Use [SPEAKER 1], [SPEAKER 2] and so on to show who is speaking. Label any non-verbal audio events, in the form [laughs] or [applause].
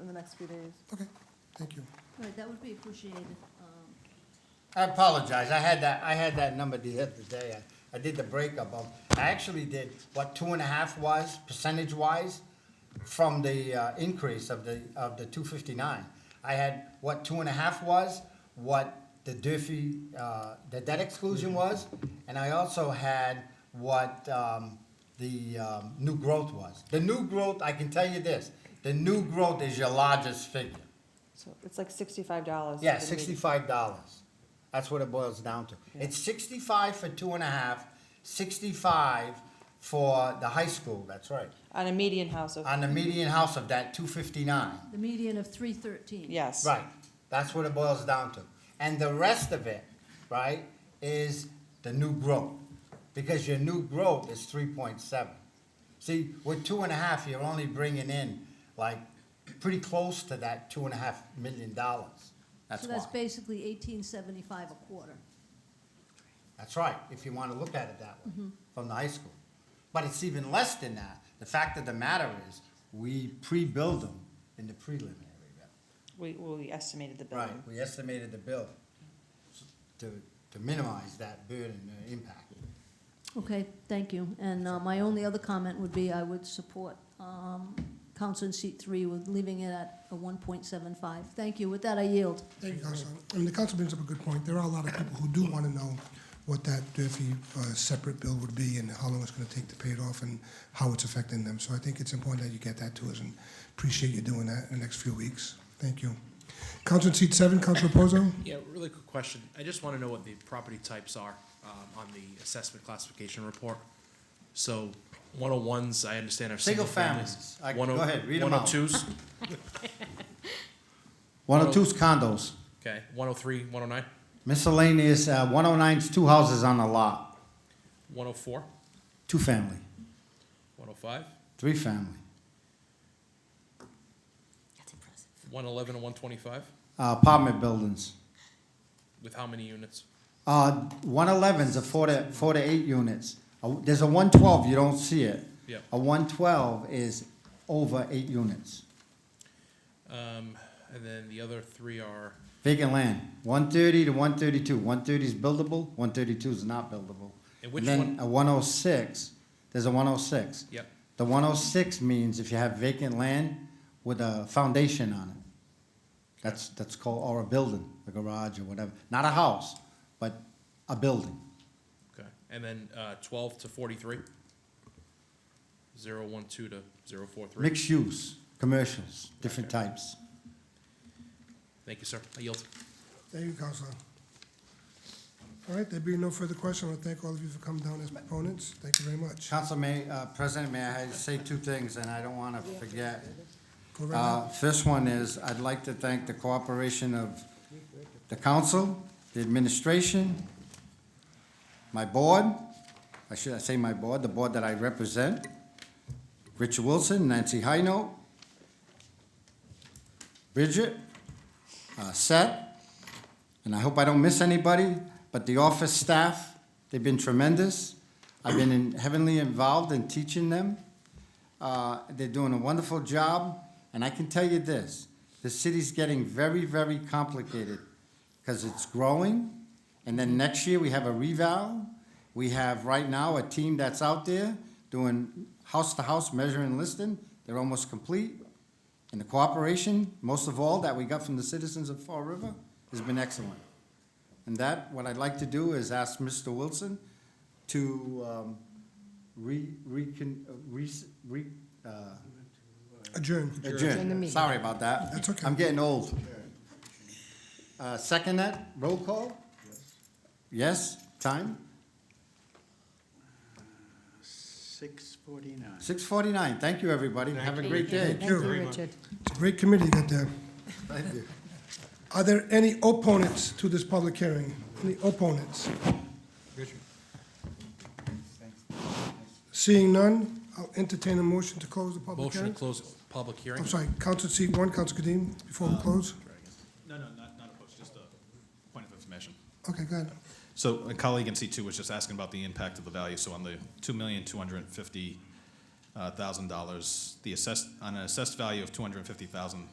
[SPEAKER 1] in the next few days.
[SPEAKER 2] Okay, thank you.
[SPEAKER 3] Right, that would be appreciated. Um,
[SPEAKER 4] I apologize, I had that, I had that number the other day, I, I did the breakup of, I actually did what two and a half was, percentage wise, from the, uh, increase of the, of the two fifty-nine. I had what two and a half was, what the Durfee, uh, the debt exclusion was, and I also had what, um, the, um, new growth was. The new growth, I can tell you this, the new growth is your largest figure.
[SPEAKER 1] So it's like sixty-five dollars.
[SPEAKER 4] Yeah, sixty-five dollars. That's what it boils down to.
[SPEAKER 1] Yeah.
[SPEAKER 4] It's sixty-five for two and a half, sixty-five for the high school, that's right.
[SPEAKER 1] On a median house of,
[SPEAKER 4] On the median house of that, two fifty-nine.
[SPEAKER 3] The median of three thirteen.
[SPEAKER 1] yes.
[SPEAKER 4] Right, that's what it boils down to. And the rest of it, right, is the new growth. Because your new growth is three point seven. See, with two and a half, you're only bringing in like pretty close to that two and a half million dollars. That's
[SPEAKER 3] So
[SPEAKER 4] why.
[SPEAKER 3] that's basically eighteen seventy-five a quarter.
[SPEAKER 4] That's right, if you want to look at it that way, from the high school. But it's even less than that. The fact of the matter is, we pre-build them in the preliminary bill.
[SPEAKER 1] We, well, we estimated the
[SPEAKER 4] Right,
[SPEAKER 1] building.
[SPEAKER 4] we estimated the bill to, to minimize that burden and impact.
[SPEAKER 3] Okay, thank you. And uh, my only other comment would be I would support um, council in seat three with leaving it at a one point seven five. Thank you. With that, I yield.
[SPEAKER 2] Thank you, Council. And the council brings up a good point. There are a lot of people who do want to know what that Durfee uh, separate bill would be and how long it's going to take to pay it off and how it's affecting them. So I think it's important that you get that to us and appreciate you doing that in the next few weeks. Thank you. Council in seat seven, Council Reposo?
[SPEAKER 5] Yeah, really quick question. I just want to know what the property types are um, on the assessment classification report. So 101s, I understand are
[SPEAKER 4] Single
[SPEAKER 5] single families.
[SPEAKER 4] families. I-
[SPEAKER 5] One oh-
[SPEAKER 4] go ahead, read 'em out. [laughs]
[SPEAKER 5] 102s,
[SPEAKER 4] One oh two's condos,
[SPEAKER 5] okay, 103, 109,
[SPEAKER 4] miscellaneous, uh, one oh nine's two houses on the lot,
[SPEAKER 5] 104,
[SPEAKER 4] two family,
[SPEAKER 5] 105,
[SPEAKER 4] three family.
[SPEAKER 6] That's impressive.
[SPEAKER 5] 111, and 125,
[SPEAKER 4] Uh, apartment buildings,
[SPEAKER 5] with how many units?
[SPEAKER 4] uh, one eleven's a four to, four to eight units. Uh, There's a one twelve, you don't see it.
[SPEAKER 5] Yep.
[SPEAKER 4] A one twelve is over eight units.
[SPEAKER 5] Um, And then the other three are,
[SPEAKER 4] Vacant land, one thirty to one thirty-two. One thirty is buildable, one thirty-two is not buildable.
[SPEAKER 5] And which
[SPEAKER 4] then a one oh six, there's a one oh six.
[SPEAKER 5] yep,
[SPEAKER 4] The one oh six means if you have vacant land with a foundation on it. That's, that's called, or a building, a garage or whatever. Not a house, but a building.
[SPEAKER 5] okay. And then uh, 12 to 43? 012 to 043.
[SPEAKER 4] Mixed use, commercials, different types.
[SPEAKER 5] Thank you, sir. I yield.
[SPEAKER 2] Thank you, Counselor. All right, there being no further questions, I want to thank all of you for coming down as proponents. Thank you very much.
[SPEAKER 4] Council May, uh, President, may I say two things, and I don't wanna forget.
[SPEAKER 2] Go right
[SPEAKER 4] Uh,
[SPEAKER 2] now.
[SPEAKER 4] First one is, I'd like to thank the cooperation of the council, the administration, my board, I should I say my board, the board that I represent, Richard Wilson, Nancy Hino, Bridget, uh, Seth, and I hope I don't miss anybody, but the office staff, they've been tremendous. I've been in- heavily involved in teaching them. Uh, They're doing a wonderful job, and I can tell you this, the city's getting very, very complicated because it's growing, and then next year we have a revow. We have right now a team that's out there doing house-to-house measure and listing. They're almost complete. And the cooperation, most of all, that we got from the citizens of Fall River has been excellent. And that, what I'd like to do is ask Mr. Wilson to um, re, recon, uh, re, re, uh,
[SPEAKER 2] Adjourn.
[SPEAKER 4] adjourn. Sorry about that.
[SPEAKER 2] That's okay.
[SPEAKER 4] I'm getting old. Uh, Second that, roll call? Yes, time?
[SPEAKER 7] Six forty-nine.
[SPEAKER 4] Six forty-nine. Thank you, everybody. Have a great day.
[SPEAKER 2] Thank you, Richard. It's a great committee you got there.
[SPEAKER 4] Thank you.
[SPEAKER 2] Are there any opponents to this public hearing? Any opponents? Seeing none, I'll entertain a motion to close the public
[SPEAKER 5] Motion to
[SPEAKER 2] hearing.
[SPEAKER 5] close public hearing.
[SPEAKER 2] I'm sorry, Council seat one, Council Kadim, before we close?
[SPEAKER 8] No, no, not, not opposed, just a point of information.
[SPEAKER 2] Okay, go ahead.
[SPEAKER 8] So a colleague in C2 was just asking about the impact of the value. So on the uh, $2,250,000, the assessed, on an assessed value of $250,000,